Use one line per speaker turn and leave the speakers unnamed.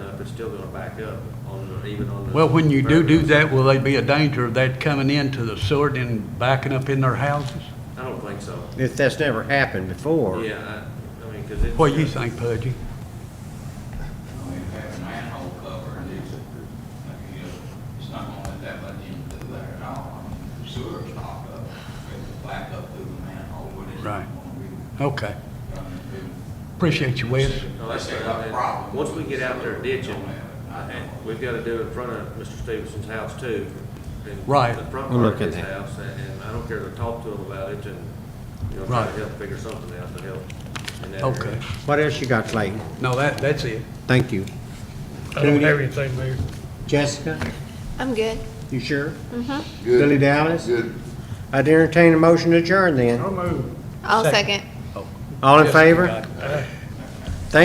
traffic's still gonna back up on, the- even on the.
Well, when you do do that, will they be a danger of that coming into the sewer and backing up in their houses?
I don't think so.
If that's never happened before.
Yeah, I, I mean, cause it's.
What do you think, Pudgy?
I mean, if you have a manhole cover and it's, like, you know, it's not gonna let that much in through there at all. I mean, the sewer's stopped up, it's back up through the manhole, but it's not
Right.
gonna be
Okay,
running through.
appreciate you, Wes.
No, that's
They
what
got
I mean.
problems
Once we get out there
with the sewer,
ditching,
they don't have it. I
and
know.
we've gotta do it in front of Mr. Stevenson's house too. and
Right.
The front
We'll
part of
look at
his
that.
house, and and I don't care to talk to him about it and, you know, try to
Right.
help figure something out to help in that area.
Okay,
What else you got, Clayton?
no, that, that's it.
Thank you.
I don't have anything, Mayor.
Jessica,
I'm good.
you sure? Mm-hmm. Billy Dallas? Good. I'd entertain a motion to adjourn then.
I'll move.
I'll
Second.
second.
All in favor?
Aye.